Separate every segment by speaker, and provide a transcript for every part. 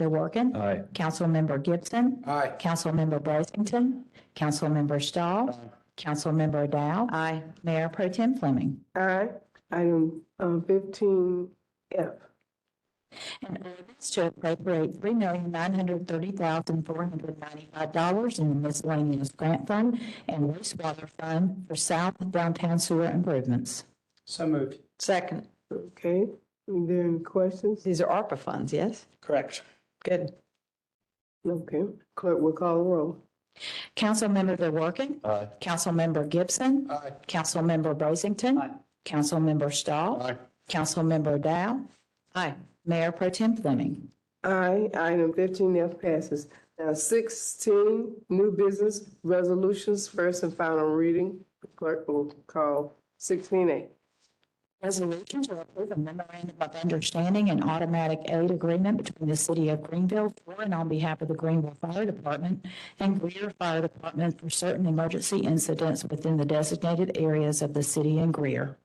Speaker 1: Bill Warken.
Speaker 2: Aye.
Speaker 1: Councilmember Gibson.
Speaker 2: Aye.
Speaker 1: Councilmember Brazington. Councilmember Stahl. Councilmember Dow.
Speaker 3: Aye.
Speaker 1: Mayor Pro Tem Fleming.
Speaker 4: Aye. Item uh, fifteen F.
Speaker 1: An ordinance to appropriate three million nine hundred thirty thousand four hundred ninety-five dollars in the miscellaneous grant fund and wastewater fund for south downtown sewer improvements.
Speaker 2: So moved.
Speaker 3: Second.
Speaker 4: Okay, are there any questions?
Speaker 3: These are ARPA funds, yes?
Speaker 2: Correct.
Speaker 3: Good.
Speaker 4: Okay, clerk will call the roll.
Speaker 1: Councilmember DeWorke,
Speaker 2: Aye.
Speaker 1: Councilmember Gibson,
Speaker 2: Aye.
Speaker 1: Councilmember
Speaker 3: Aye.
Speaker 1: Brazington, Councilmember Stahl, Councilmember Dow,
Speaker 3: Aye.
Speaker 1: Mayor Pro Tem Fleming.
Speaker 4: Aye, item fifteen F passes. Now sixteen, new business resolutions, first and final reading. Clerk will call sixteen A.
Speaker 1: Resolution to approve a memorandum of understanding and automatic aid agreement between the city of Greenville for and on behalf of the Greenville Fire Department and Greer Fire Department for certain emergency incidents within the designated areas of the city and Greer.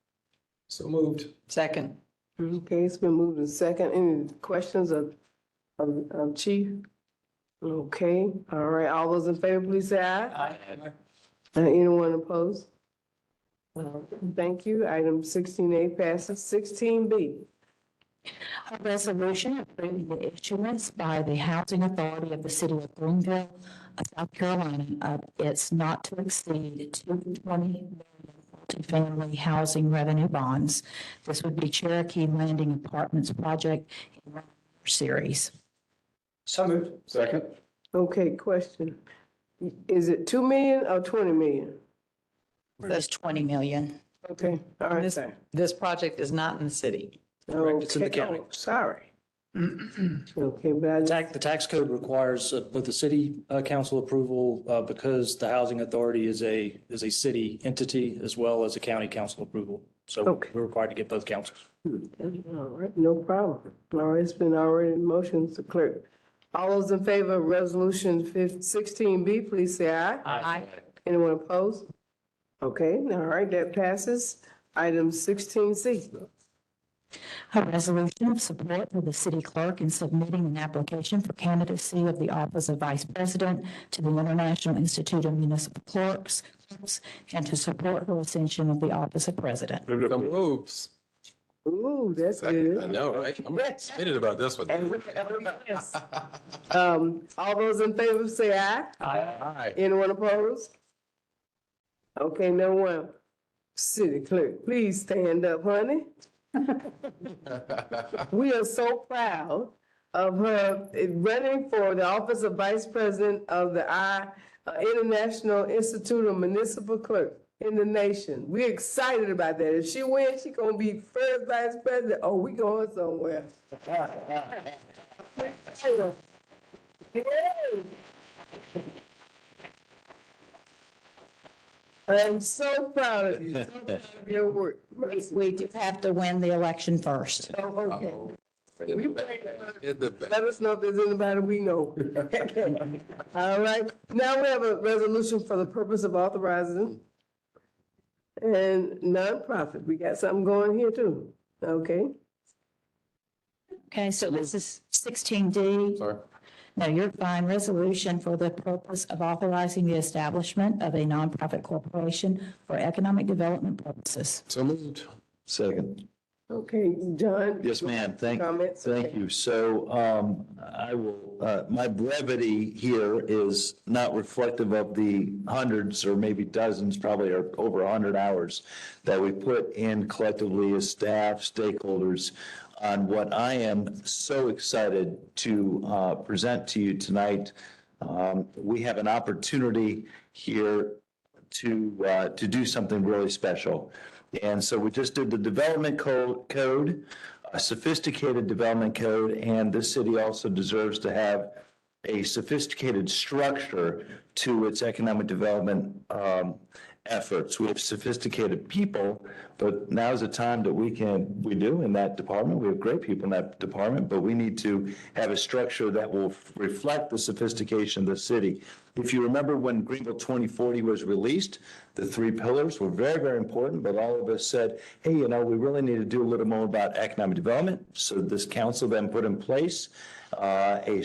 Speaker 2: So moved.
Speaker 3: Second.
Speaker 4: Okay, it's been moved and second. Any questions of, of, of chief? Okay, all right, all those in favor, please say aye. Uh, Anyone opposed? Well, Thank you. Item sixteen A passes. Sixteen B.
Speaker 1: A resolution approving the issuance by the Housing Authority of the City of Greenville, uh, South Carolina, of its not to exceed two twenty multifamily housing revenue bonds. This would be Cherokee Landing Apartments Project Series.
Speaker 2: So moved. Second.
Speaker 4: Okay, question. Is it two million or twenty million?
Speaker 1: That's twenty million.
Speaker 4: Okay, all right.
Speaker 3: This- This project is not in the city.
Speaker 4: Correct,
Speaker 5: it's in the county.
Speaker 4: Sorry. Okay, but I, just-
Speaker 5: Tax, the tax code requires uh, both the city uh, council approval uh, because the housing authority is a, is a city entity as well as a county council approval. So
Speaker 4: Okay.
Speaker 5: we're required to get both councils.
Speaker 4: all right, no problem. All right, it's been already motioned to clerk. All those in favor of resolution fif- sixteen B, please say aye.
Speaker 3: Aye.
Speaker 4: Anyone opposed? Okay, all right, that passes. Item sixteen C.
Speaker 1: A resolution of support for the city clerk in submitting an application for candidacy of the office of vice president to the International Institute of Municipal Clerks clerks, and to support her ascension of the office of president.
Speaker 6: So moves.
Speaker 4: Ooh, that's
Speaker 6: I
Speaker 4: good.
Speaker 6: know, right? I'm excited about this one.
Speaker 4: And we- Um, all those in favor say aye.
Speaker 6: Aye.
Speaker 4: Anyone opposed? Okay, no one. City clerk, please stand up, honey. We are so proud of her eh, running for the office of vice president of the I, uh, International Institute of Municipal Clerk in the nation. We're excited about that. If she wins, she gonna be first vice president. Oh, we going somewhere. I'm so proud of you. So proud of Your work.
Speaker 1: We do have to win the election first.
Speaker 4: Oh, okay.
Speaker 6: In the back.
Speaker 4: Let us know if there's anybody we know. All right, now we have a resolution for the purpose of authorizing and nonprofit. We got something going here too, okay?
Speaker 1: Okay, so this is sixteen D.
Speaker 6: Sorry.
Speaker 1: No, you're fine. Resolution for the purpose of authorizing the establishment of a nonprofit corporation for economic development purposes.
Speaker 6: So moved.
Speaker 2: Second.
Speaker 4: Okay, John?
Speaker 2: Yes, ma'am. Thank,
Speaker 4: Comments?
Speaker 2: thank you. So um, I will, uh, my brevity here is not reflective of the hundreds or maybe dozens, probably or over a hundred hours that we put in collectively as staff, stakeholders on what I am so excited to uh, present to you tonight. Um, We have an opportunity here to, uh, to do something really special. And so we just did the development co- code, a sophisticated development code, and this city also deserves to have a sophisticated structure to its economic development um, efforts. We have sophisticated people, but now's the time that we can, we do in that department. We have great people in that department, but we need to have a structure that will reflect the sophistication of the city. If you remember when Greenville 2040 was released, the three pillars were very, very important, but all of us said, hey, you know, we really need to do a little more about economic development. So this council then put in place uh, a